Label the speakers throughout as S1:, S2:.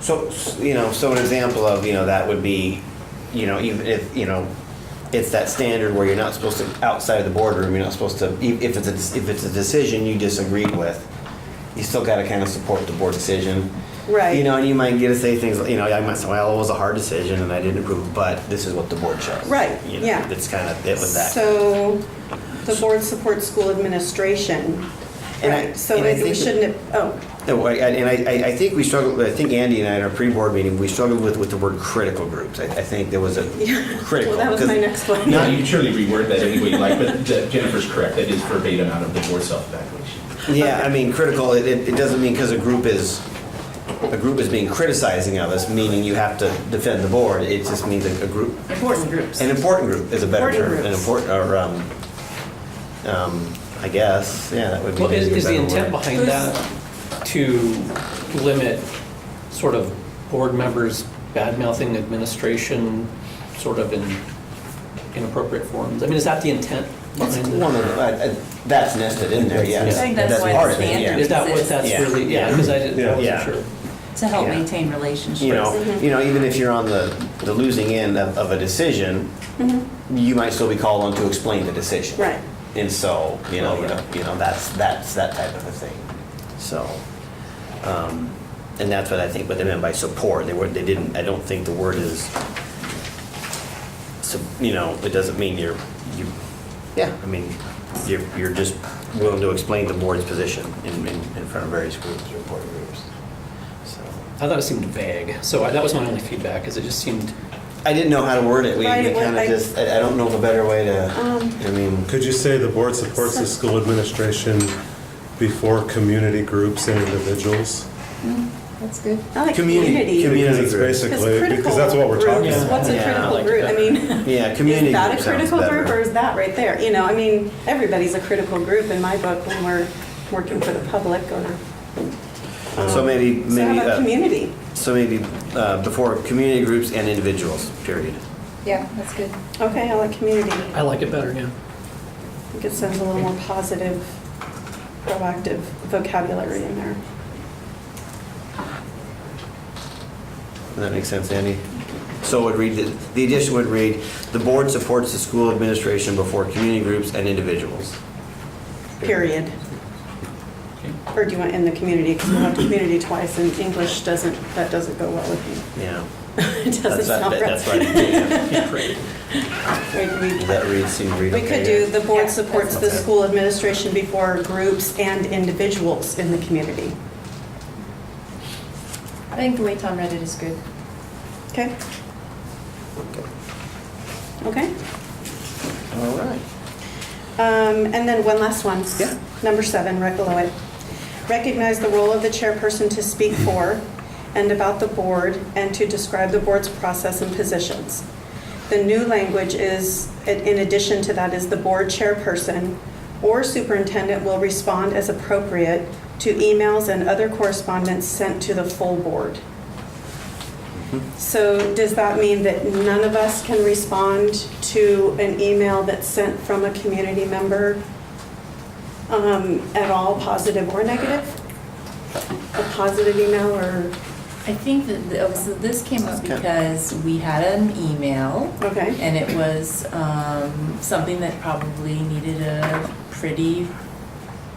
S1: So, s- you know, so an example of, you know, that would be, you know, even if, you know, it's that standard where you're not supposed to, outside of the boardroom, you're not supposed to, e- if it's a, if it's a decision you disagreed with, you still gotta kind of support the board decision.
S2: Right.
S1: You know, and you might get to say things, like- you know, I might say, well, it was a hard decision and I didn't approve, it, but this is what the board chose.
S2: Right,
S1: You know,
S2: yeah.
S1: It's kind of, it was that.
S2: So the board supports school administration.
S1: And I-
S2: Right, so
S1: and I
S2: it- we
S1: think-
S2: shouldn't, have- oh,
S1: No, I- And I, I- I think we struggled, I think Andy and I in our pre-board meeting, we struggled with, with the word critical groups. I, I think there was a critical.
S2: well, that was my
S1: 'cause-
S2: next one.
S1: No,
S3: Yeah, you can surely reword that any way you like, but Je- Jennifer's correct, that is verbatim out of the board self-evaluation.
S1: Yeah, I mean, critical, it, it it doesn't mean because a group is, a group is being criticizing of us, meaning you have to defend the board. It just means a a group,
S4: Important groups.
S1: an important group is a better
S2: Important
S1: term. An
S2: groups.
S1: important, or, um, um, I guess, yeah, that would be
S5: Well, is,
S1: maybe a
S5: is the
S1: better
S5: intent
S1: word.
S5: behind
S2: Who's-
S5: that to limit sort of board members bad-mouthing administration sort of in inappropriate forms? I mean, is that the intent
S1: It's
S5: behind
S1: one
S5: it?
S1: of, the- I- I- that's nested in there, yeah.
S5: I think
S4: that's why
S1: part
S4: it's
S1: of it, yeah.
S4: standard.
S5: Is that what that's
S1: Yeah.
S5: really, yeah, because I didn't, I
S1: Yeah.
S5: wasn't sure.
S4: To help
S1: Yeah.
S4: maintain relationships.
S1: you know, you know, even if you're on the, the losing end of, of a decision, you might still be called on to explain the decision.
S2: Right.
S1: And so, you know, you
S5: Oh, yeah.
S1: know, you know, that's, that's that type of a thing. So, um, and that's what I think, what they meant by support. They were, they didn't, I don't think the word is, so, you know, it doesn't mean you're, you, yeah, I mean, you're, you're just willing to explain the board's position in, in, in front of various groups or board groups. So.
S5: I thought it seemed vague, so I- that was my only feedback, is it just seemed,
S1: I didn't know how to word it. We,
S2: Right, Um,
S1: we
S2: it was
S1: kind of
S2: like-
S1: just, I, I don't know of a better way to, I mean,
S6: Could you say the board supports the school administration before community groups and individuals?
S7: That's good.
S2: I like
S1: Community-
S2: community.
S1: community
S6: Because it's
S1: groups.
S2: Because
S6: basically,
S2: critical
S6: because that's what we're talking
S2: groups,
S5: Yeah.
S6: about.
S2: What's a
S1: Yeah, I
S2: critical
S5: like it
S2: group? I
S5: better.
S2: mean.
S1: yeah, community.
S2: Is that a
S1: group sounds
S2: critical
S1: better.
S2: group or is that right there? You know, I mean, everybody's a critical group in my book when we're working for the public or.
S1: So maybe, maybe.
S2: um, So how
S1: uh,
S2: about community?
S1: So maybe uh, before community groups and individuals, period.
S7: Yeah, that's good.
S2: Okay, I like community.
S5: I like it better, yeah.
S2: I think it sounds a little more positive, proactive vocabulary in there.
S1: Does that make sense, Andy? So it would read, that- the addition would read, the board supports the school administration before community groups and individuals.
S2: Period. Or do you want in the community, because we'll have community twice, and English doesn't, that doesn't go well with me.
S1: Yeah.
S2: It doesn't
S1: That's
S2: sound
S1: what-
S2: right.
S1: That's what I did, yeah.
S2: We- we-
S1: Does that read, seem to read
S2: We
S1: okay
S2: could
S1: to
S2: do,
S1: you?
S2: the board
S4: Yeah,
S2: supports the
S1: that's okay.
S2: school administration before groups and individuals in the community.
S7: I think the way Tom read it is good.
S2: Okay?
S1: Okay.
S2: Okay?
S1: All right.
S2: Um, And then one last one.
S1: Yeah.
S2: Number seven, right below it. Recognize the role of the chairperson to speak for and about the board and to describe the board's process and positions. The new language is, in addition to that, is the board chairperson or superintendent will respond as appropriate to emails and other correspondence sent to the full board. So does that mean that none of us can respond to an email that's sent from a community member um, at all, positive or negative? A positive email or,
S4: I think that, the- oh, so this came up
S1: Okay.
S4: because we had an email
S2: okay,
S4: and it was um, something that probably needed a pretty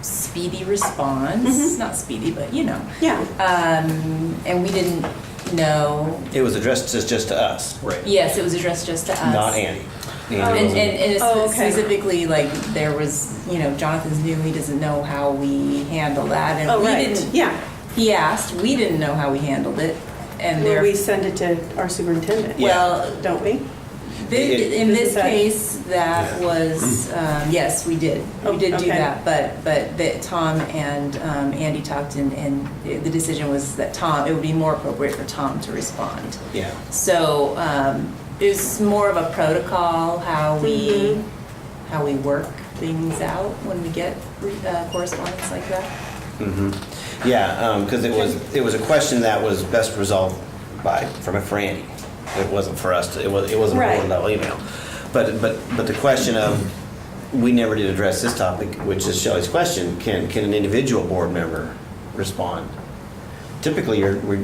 S4: speedy response.
S2: Mhm.
S4: Not speedy, but you know.
S2: yeah,
S4: Um, And we didn't know,
S1: It was addressed just, just to us,
S5: Right.
S4: yes, it was addressed just to us.
S1: not Andy.
S2: Um,
S1: Andy
S4: And,
S1: wasn't-
S4: and, and it's
S2: Oh, okay.
S4: specifically, like, there was, you know, Jonathan's new, he doesn't know how we handle that, and
S2: oh,
S4: we
S2: right,
S4: didn't.
S2: yeah.
S4: He asked, we didn't know how we handled it, and
S2: Well,
S4: there.
S2: we send it to our superintendent,
S1: Yeah.
S4: Well,
S2: don't we?
S4: thi- in
S2: This
S4: this
S2: is that-
S4: case, that
S1: Yeah.
S4: was, um, yes, we did,
S2: Oh,
S4: we did do
S2: okay.
S4: that, but, but that Tom and um, Andy talked, and, and the decision was that Tom, it would be more appropriate for Tom to respond.
S1: Yeah.
S4: So um, it's more of a protocol, how we,
S2: Mhm.
S4: how we work things out when we get uh, correspondence like that.
S1: Mm-hmm. Yeah, because it was, it was a question that was best resolved by, from a Franny. It wasn't for us, to- it was, it wasn't a
S2: Right.
S1: board level email. But, but, but the question of, we never did address this topic, which is Shelley's question, can, can an individual board member respond? Typically, you're, we